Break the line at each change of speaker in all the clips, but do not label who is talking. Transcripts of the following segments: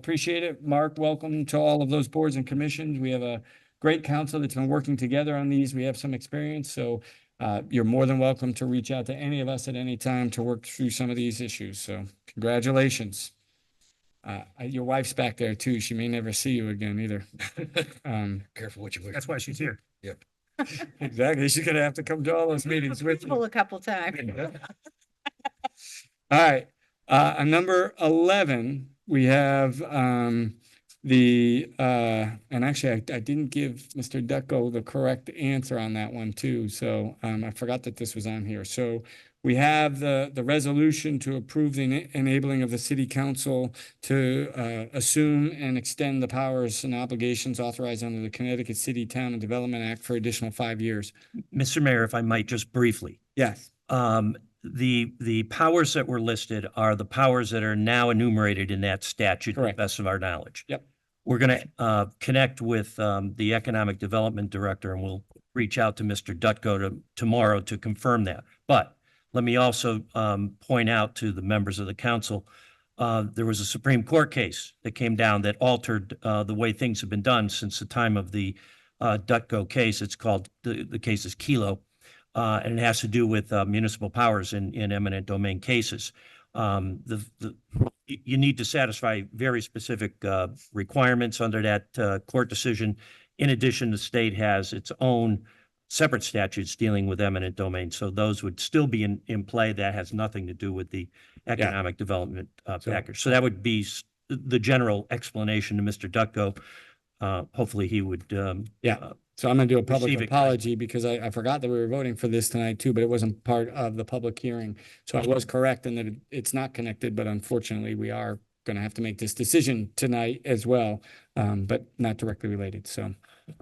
Appreciate it. Mark, welcome to all of those boards and commissions. We have a great council that's been working together on these. We have some experience, so uh, you're more than welcome to reach out to any of us at any time to work through some of these issues. So congratulations. Uh, your wife's back there too. She may never see you again either. Um,
Careful what you wish.
That's why she's here.
exactly. She's gonna have to come to all those meetings with you.
Pull a couple times.
All right, uh, on number eleven, we have, um, the, uh, and actually, I, I didn't give Mr. Ducko the correct answer on that one too, so, um, I forgot that this was on here. So we have the, the resolution to approve the ena- enabling of the city council to, uh, assume and extend the powers and obligations authorized under the Connecticut City Town and Development Act for additional five years.
Mr. Mayor, if I might, just briefly.
Yes.
Um, the, the powers that were listed are the powers that are now enumerated in that statute, to the
Correct.
best of our knowledge.
Yep.
We're gonna, uh, connect with, um, the Economic Development Director and we'll reach out to Mr. Dutko to, tomorrow to confirm that. But let me also, um, point out to the members of the council, uh, there was a Supreme Court case that came down that altered, uh, the way things have been done since the time of the, uh, Dutko case. It's called, the, the case is Kelo uh, and it has to do with uh, municipal powers in, in eminent domain cases. Um, the, the, you, you need to satisfy very specific, uh, requirements under that, uh, court decision. In addition, the state has its own separate statutes dealing with eminent domain, so those would still be in, in play. That has nothing to do with the economic development, uh,
So-
package. So that would be s- the general explanation to Mr. Ducko. Uh, hopefully he would, um,
So I'm gonna do a public
Receiving.
apology because I, I forgot that we were voting for this tonight too, but it wasn't part of the public hearing. So I was correct in that it- it's not connected, but unfortunately, we are gonna have to make this decision tonight as well, um, but not directly related. So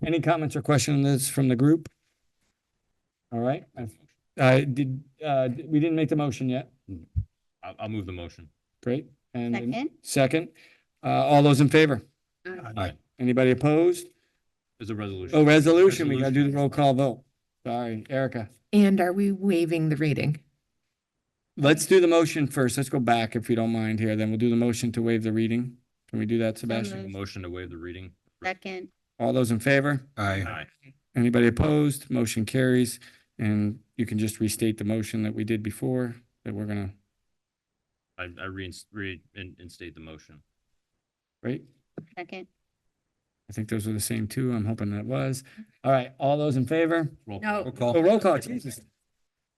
any comments or questions from the group? All right, I- I did, uh, we didn't make the motion yet.
I'll, I'll move the motion.
Great. And then-
Second?
second, uh, all those in favor?
Uh,
Anybody opposed?
There's a resolution.
Oh, resolution, we gotta do
Resolution.
the roll call vote. Sorry, Erica.
And are we waiving the reading?
Let's do the motion first. Let's go back if you don't mind here, then we'll do the motion to waive the reading. Can we do that, Sebastian?
moved.
Motion to waive the reading.
Second,
All those in favor?
Aye.
Aye.
Anybody opposed? Motion carries. And you can just restate the motion that we did before that we're gonna,
I, I reinst, reinstate the motion.
right?
second.
I think those are the same two. I'm hoping that was. All right, all those in favor?
Roll call.
No,
Oh, roll call, Jesus.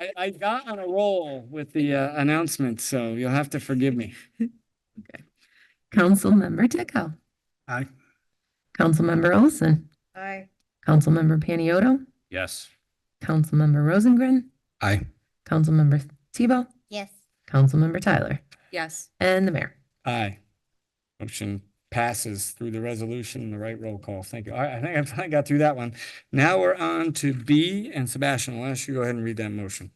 I, I got on a roll with the uh, announcement, so you'll have to forgive me.
Councilmember Dicko.
Aye.
Councilmember Olson.
aye.
Councilmember Panietto.
Yes.
Councilmember Rosengren.
Aye.
Councilmember Tebow.
Yes.
Councilmember Tyler.
Yes.
And the mayor.
Aye. Motion passes through the resolution and the right roll call. Thank you. All right, I think I finally got through that one. Now we're on to B, and Sebastian, why don't you go ahead and read that motion?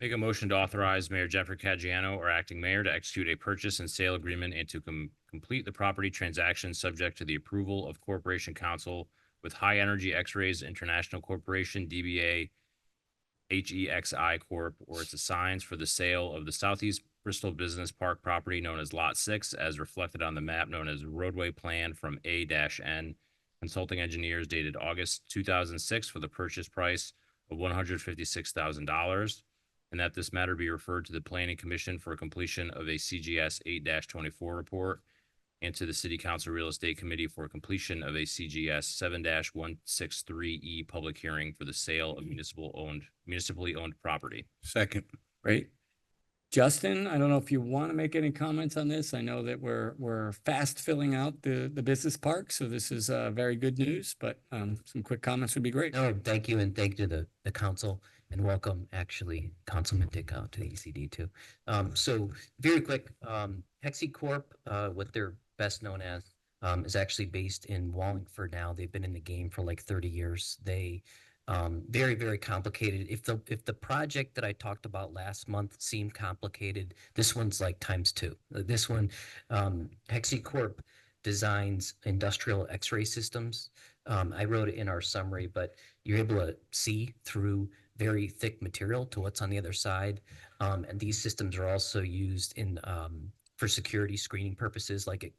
Make a motion to authorize Mayor Jeffrey Caggiano or acting mayor to execute a purchase and sale agreement and to com- complete the property transaction subject to the approval of Corporation Council with High Energy X-rays International Corporation, DBA HEXI E Corp., or its assigns for the sale of the Southeast Bristol Business Park property known as Lot Six as reflected on the map known as roadway plan from A N Consulting Engineers dated August two thousand six for the purchase price of one hundred fifty-six thousand dollars and that this matter be referred to the planning commission for completion of a CGS eight twenty-four report and to the city council real estate committee for completion of a CGS seven one six three E public hearing for the sale of municipal owned, municipally owned property.
Second.
Right? Justin, I don't know if you want to make any comments on this. I know that we're, we're fast filling out the, the business park, so this is, uh, very good news, but, um, some quick comments would be great.
No, thank you and thank you to the, the council and welcome actually Councilman Dickow to the ECD too. Um, so very quick, um, Hexi Corp, uh, what they're best known as, um, is actually based in Wallingford now. They've been in the game for like thirty years. They, um, very, very complicated. If the, if the project that I talked about last month seemed complicated, this one's like times two. Uh, This one, um, Hexi Corp designs industrial x-ray systems. Um, I wrote it in our summary, but you're able to see through very thick material to what's on the other side. Um, and these systems are also used in um, for security screening purposes, like at